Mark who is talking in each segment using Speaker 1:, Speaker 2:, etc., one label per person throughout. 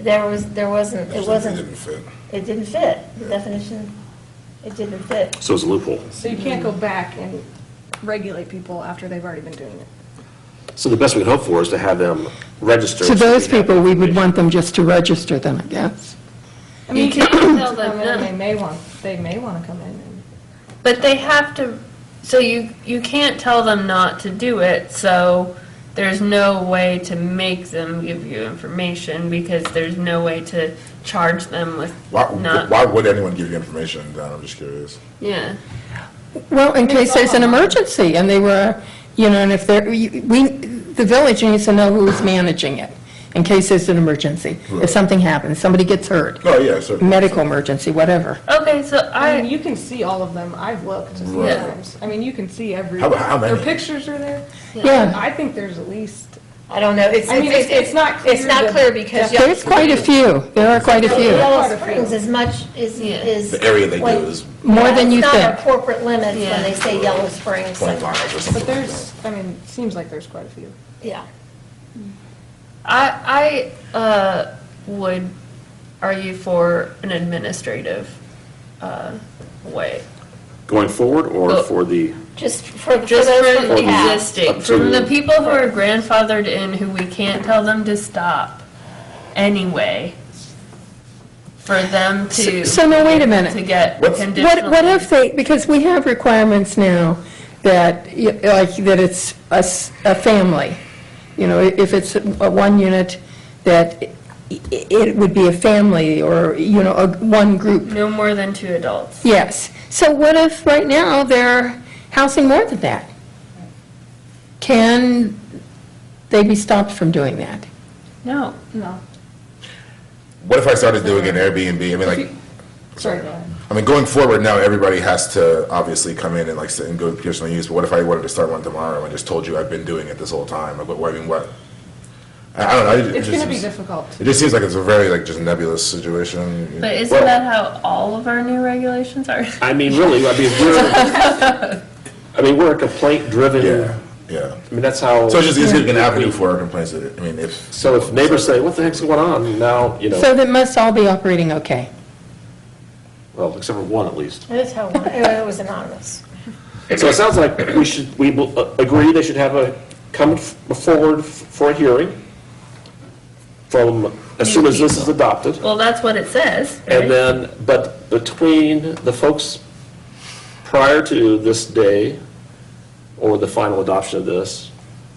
Speaker 1: there was, there wasn't, it
Speaker 2: It didn't
Speaker 1: wasn't,
Speaker 2: fit.
Speaker 1: it didn't fit, the definition, it didn't fit.
Speaker 3: So it's a loophole.
Speaker 4: So you can't go back and regulate people after they've already been doing it.
Speaker 3: So the best we can hope for is to have them register.
Speaker 5: To
Speaker 3: so
Speaker 5: those
Speaker 3: we have
Speaker 5: people, we would
Speaker 3: information.
Speaker 5: want them just to register then, I guess.
Speaker 4: I mean, you
Speaker 6: You
Speaker 4: can't
Speaker 6: can't tell
Speaker 4: tell them,
Speaker 6: them no.
Speaker 4: they may want, they may want to come in and.
Speaker 6: But they have to, so you, you can't tell them not to do it, so there's no way to make them give you information because there's no way to charge them with
Speaker 2: Why,
Speaker 6: not.
Speaker 2: why would anyone give you information, Don? I'm just curious.
Speaker 6: Yeah.
Speaker 5: Well, in case there's an emergency, and they were, you know, and if they're, you- we, the village needs to know who's managing it, in case there's an emergency.
Speaker 2: Right.
Speaker 5: If something happens, somebody gets hurt,
Speaker 2: No, yeah, certainly.
Speaker 5: medical emergency, whatever.
Speaker 6: Okay, so
Speaker 4: I mean,
Speaker 6: I,
Speaker 4: Um, you can see all of them. I've looked
Speaker 2: Right.
Speaker 4: sometimes. I mean, you can see every,
Speaker 2: How- how many?
Speaker 4: their pictures are there.
Speaker 5: Yeah.
Speaker 4: I think there's at least,
Speaker 1: I don't know, it's,
Speaker 4: I mean,
Speaker 1: it's,
Speaker 4: it's- it's not clear
Speaker 1: it's not
Speaker 4: the
Speaker 1: clear because. y'all-
Speaker 5: There's quite a few, there are quite a few,
Speaker 1: Yellow Springs is much, is,
Speaker 6: Yeah.
Speaker 1: is.
Speaker 2: The area they do
Speaker 1: when-
Speaker 2: is-
Speaker 5: More than you
Speaker 1: It's not
Speaker 5: think.
Speaker 1: our corporate limits when
Speaker 6: Yeah.
Speaker 1: they say Yellow Springs,
Speaker 2: Twenty miles or
Speaker 4: but
Speaker 2: something like
Speaker 4: there's,
Speaker 2: that.
Speaker 4: I mean, seems like there's quite a few.
Speaker 1: yeah.
Speaker 6: I, I, uh, would argue for an administrative, uh, way.
Speaker 3: Going forward or
Speaker 6: Well-
Speaker 3: for the,
Speaker 1: Just for, for
Speaker 6: Just
Speaker 1: those
Speaker 6: from
Speaker 1: from the past.
Speaker 6: existing, from the people who are grandfathered in, who we can't tell them to stop anyway, for them to.
Speaker 5: So- so now wait a minute.
Speaker 6: To get
Speaker 2: What's-
Speaker 6: conditional.
Speaker 5: What, what if they, because we have requirements now that, y- like, that it's a, s- a family. You know, if it's a one unit, that i- i- it would be a family or, you know, a, one group.
Speaker 6: No more than two adults.
Speaker 5: Yes. So what if right now they're housing more than that? Can they be stopped from doing that?
Speaker 6: No.
Speaker 4: No.
Speaker 2: What if I started doing an Airbnb? I mean, like,
Speaker 4: Sorry, go ahead.
Speaker 2: I mean, going forward now, everybody has to obviously come in and like sit and go personal use. But what if I wanted to start one tomorrow and just told you I've been doing it this whole time? Like, what, what- I mean, what? I, I don't know. It, it
Speaker 4: It's
Speaker 2: just
Speaker 4: going to be
Speaker 2: seems-
Speaker 4: difficult
Speaker 2: It
Speaker 4: to,
Speaker 2: just seems like it's a very like just nebulous situation.
Speaker 6: But isn't
Speaker 2: Well,
Speaker 6: that how all of our new regulations are?
Speaker 3: I mean, really, I mean, we're, I mean, we're a complaint-driven,
Speaker 2: Yeah,
Speaker 3: I
Speaker 2: yeah.
Speaker 3: mean, that's how.
Speaker 2: So it's just it's an avenue for our complaints. I mean, if
Speaker 3: So if neighbors say, what the heck's going on? Now, you
Speaker 5: So
Speaker 3: know,
Speaker 5: that must all be operating okay.
Speaker 3: well, except for one at least.
Speaker 1: That's how, it was anonymous.
Speaker 3: So it sounds like we should, we will, uh, agree they should have a, come f- forward f- for a hearing from, as soon as this is adopted.
Speaker 6: Well, that's what it says.
Speaker 3: And
Speaker 6: right?
Speaker 3: then, but between the folks prior to this day, or the final adoption of this,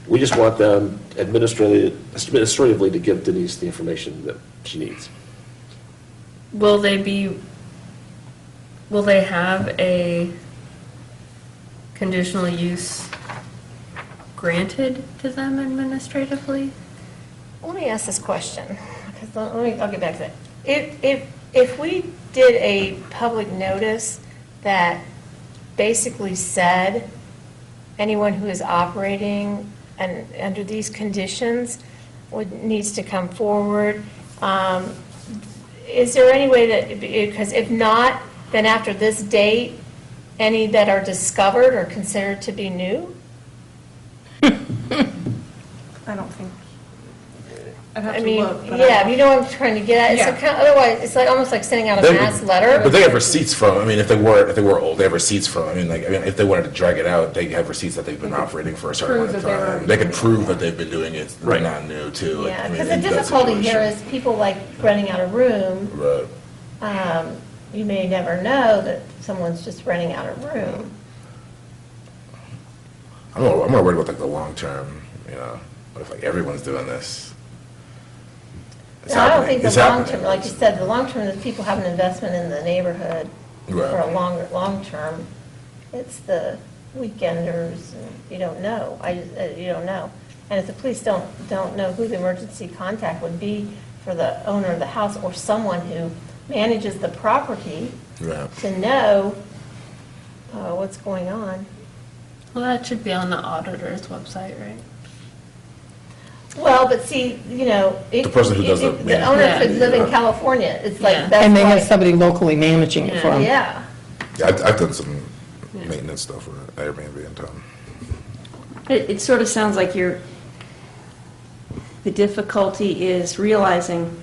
Speaker 3: we just want them administratively, administratively to give Denise the information that she needs.
Speaker 6: Will they be, will they have a conditional use granted to them administratively?
Speaker 1: Let me ask this question, because let let me, I'll get back to that. If, if, if we did a public notice that basically said, anyone who is operating and, under these conditions would, needs to come forward, um, is there any way that, because if not, then after this date, any that are discovered are considered to be new?
Speaker 4: I don't think. I'd have
Speaker 1: I
Speaker 4: to
Speaker 1: mean,
Speaker 4: look, but I don't-
Speaker 1: yeah, you know what I'm trying to get at, it's
Speaker 4: Yeah.
Speaker 1: like, kind of- otherwise, it's like, almost like sending out a
Speaker 2: They-
Speaker 1: mass letter.
Speaker 2: But they have receipts from, I mean, if they were, if they were old, they have receipts from, I mean, like, I mean, if they wanted to drag it out, they have receipts that they've been operating for a certain
Speaker 4: Prove
Speaker 2: amount of
Speaker 4: that they were-
Speaker 2: time. They can prove that they've been doing it, they're
Speaker 3: Right.
Speaker 2: not new too. like, I
Speaker 1: Yeah,
Speaker 2: mean,
Speaker 1: because the
Speaker 2: in that
Speaker 1: difficulty here
Speaker 2: situation.
Speaker 1: is people like renting out a room,
Speaker 2: Right.
Speaker 1: um, you may never know that someone's just renting out a room.
Speaker 2: I'm more, I'm more worried about like the long term, you know, what if like everyone's doing this? It's
Speaker 1: Now, I don't
Speaker 2: happening.
Speaker 1: think the
Speaker 2: It's
Speaker 1: long
Speaker 2: happening.
Speaker 1: term, like you said, the long term is people have an investment in the neighborhood for a
Speaker 2: Right.
Speaker 1: longer, long term. It's the weekenders, and you don't know, I, just- uh, you don't know. And if the police don't, don't know who the emergency contact would be for the owner of the house or someone who manages the property
Speaker 2: Right.
Speaker 1: to know uh, what's going on.
Speaker 6: Well, that should be on the auditor's website, right?
Speaker 1: Well, but see, you know. it-
Speaker 2: The person who does
Speaker 1: it-
Speaker 2: the
Speaker 1: The owner
Speaker 6: management.
Speaker 1: could live in California, it's
Speaker 6: Yeah.
Speaker 1: like, that's
Speaker 5: And they have
Speaker 1: why,
Speaker 5: somebody locally managing it for them.
Speaker 1: yeah.
Speaker 2: Yeah, I've, I've done some maintenance stuff for Airbnb in town.
Speaker 7: It, it sort of sounds like you're, the difficulty is realizing